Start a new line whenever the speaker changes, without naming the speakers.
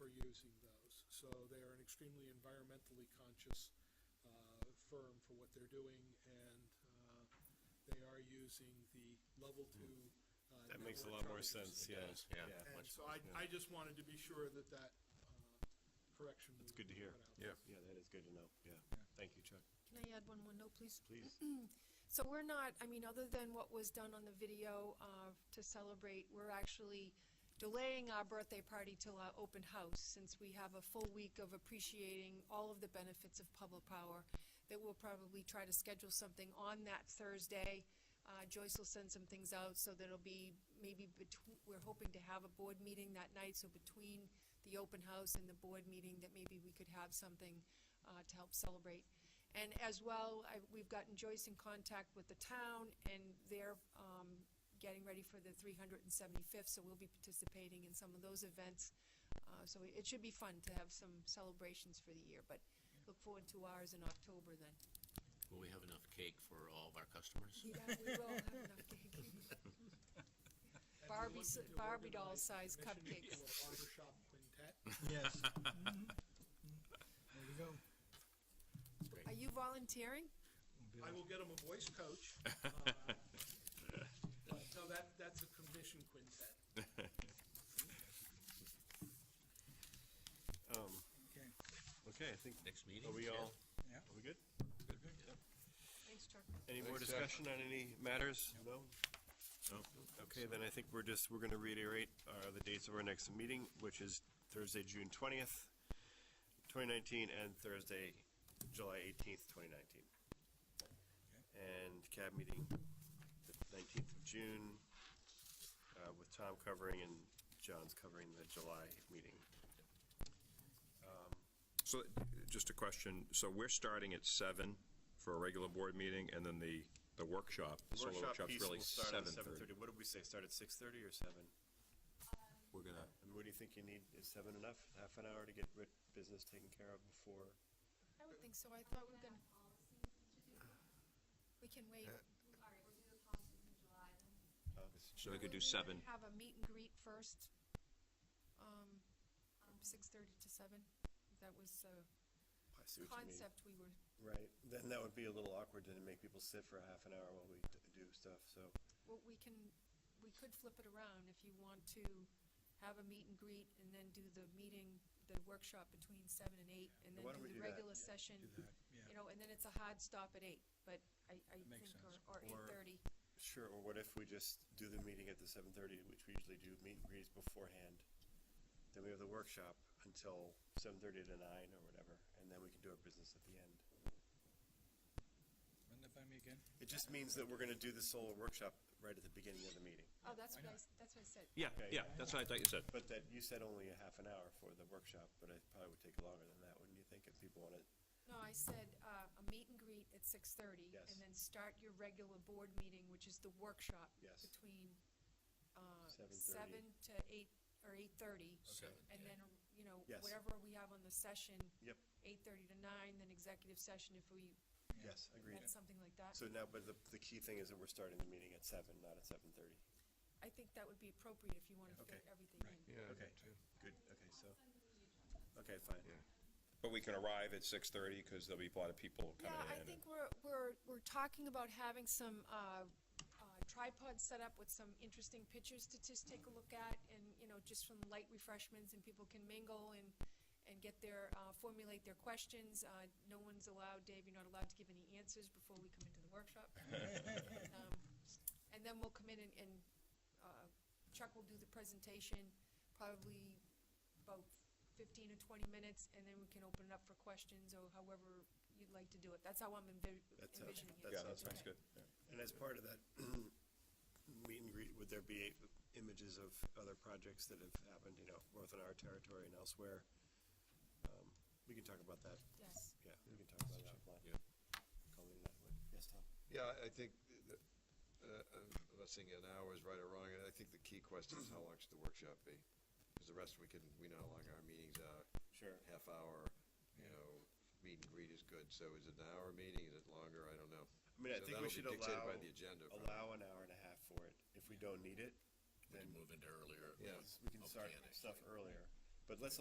uh, using those. So they are an extremely environmentally conscious uh, firm for what they're doing, and uh, they are using the level two. uh,
That makes a
network
lot more
charges.
sense, yeah, yeah.
And
much
so
more,
I,
yeah.
I just wanted to be sure that that uh, correction. That's
good to hear.
Yeah.
Yeah, that is good to know, yeah. Thank you, Chuck.
Can I add one more note, please?
Please.
So we're not, I mean, other than what was done on the video uh, to celebrate, we're actually delaying our birthday party till our open house, since we have a full week of appreciating all of the benefits of public power, that we'll probably try to schedule something on that Thursday. Uh, Joyce will send some things out, so that'll be maybe between, we're hoping to have a board meeting that night, so between the open house and the board meeting, that maybe we could have something uh, to help celebrate. And as well, I, we've gotten Joyce in contact with the town, and they're, um, getting ready for the three hundred and seventy-fifth, so we'll be participating in some of those events. Uh, so it should be fun to have some celebrations for the year, but look forward to ours in October then.
Will we have enough cake for all of our customers?
Yeah, we will have enough cake.
And we're
Barbie s-
looking to
Barbie doll
organize a
size
commission
cupcakes.
to a barbershop quintet.
Yes. There you go.
Are you volunteering?
I will get him a voice coach. uh, But no, that, that's a commission quintet.
Um,
Okay.
okay, I think,
Next meeting?
are we all,
Yeah.
are we good?
Thanks, Chuck.
Any more
Thanks, Jack.
discussion on any matters? No?
No.
Okay, then I think we're just, we're gonna reiterate, uh, the dates of our next meeting, which is Thursday, June twentieth, twenty nineteen, and Thursday, July eighteenth, twenty nineteen. And cab meeting, the nineteenth of June, uh, with Tom covering and John's covering the July meeting.
So, just a question, so we're starting at seven for a regular board meeting, and then the, the workshop, the solo
Workshop
workshop's
piece
really
will start at
seven
seven
thirty.
thirty. What did we say, start at six thirty or seven?
We're gonna,
And what do you think you need, is seven enough, half an hour to get writ- business taken care of before? uh,
I don't think so. I thought we were gonna, we can wait.
All right, we'll do the policies in July then.
so we could do
We're gonna
seven,
Have a meet and greet first, um, from six-thirty to seven. That was the
I see what you mean.
concept we were,
Right, then that would be a little awkward to make people sit for half an hour while we d- do stuff, so.
well, we can, we could flip it around if you want to have a meet and greet and then do the meeting, the workshop between seven and eight, and then
why don't we
do the
do that?
regular session.
Do that, yeah.
You know, and then it's a hard stop at eight, but I, I think,
Makes sense.
or, or eight-thirty.
Sure, or what if we just do the meeting at the seven thirty, which we usually do meet and greets beforehand? Then we have the workshop until seven thirty to nine or whatever, and then we can do our business at the end.
Run that by me again.
It just means that we're gonna do the solar workshop right at the beginning of the meeting,
Oh, that's what I, s- that's what I said.
yeah,
Okay.
yeah, that's what I thought you said.
but that, you said only a half an hour for the workshop, but it probably would take longer than that, wouldn't you think, if people wanted?
No, I said, uh, a meet and greet at six-thirty,
Yes.
and then start your regular board meeting, which is the workshop.
Yes.
Between, uh,
7:30.
seven to eight, or eight-thirty,
Seven,
and
yeah.
then, you know,
Yes.
whatever we have on the session,
Yep,
eight-thirty to nine, then executive session if we,
yes, agreed.
had something like that.
So now, but the, the key thing is that we're starting the meeting at seven, not at seven thirty.
I think that would be appropriate if you wanna fit
Okay.
everything in.
Okay, good, okay, so, okay, fine.
But we can arrive at six thirty, because there'll be a lot of people
Yeah,
coming in.
I
and-
think we're, we're, we're talking about having some, uh, uh, tripods set up with some interesting pictures to just take a look at and, you know, just from light refreshments and people can mingle and, and get their, uh, formulate their questions. Uh, no one's allowed, Dave, you're not allowed to give any answers before we come into the workshop. Um, And then we'll come in and, and, uh, Chuck will do the presentation, probably about fifteen or twenty minutes, and then we can open it up for questions or however you'd like to do it. That's how I'm envi-
That sounds-
envisioning it.
that
Yeah,
sounds
that
Okay.
sounds good.
uh, And as part of that meet and greet, would there be images of other projects that have happened, you know, both in our territory and elsewhere? Um, We can talk about that,
Yes.
yeah, we can talk about that offline.
Yeah.
Call it that way. Yes, Tom?
Yeah, I- I think, that, uh, uh, unless I get an hour is right or wrong, and I think the key question is how long should the workshop be? Because the rest, we can, we know how long our meetings are.
Sure.
Half hour, you know, meet and greet is good, so is it an hour meeting, is it longer, I don't know.
I mean, I
So
think we
that'll be
should
dictated
allow,
by the agenda, probably.
allow an hour and a half for it. If we don't need it,
We
then
can move into earlier. uh,
Yeah.
we can start
Organic.
stuff earlier. But let's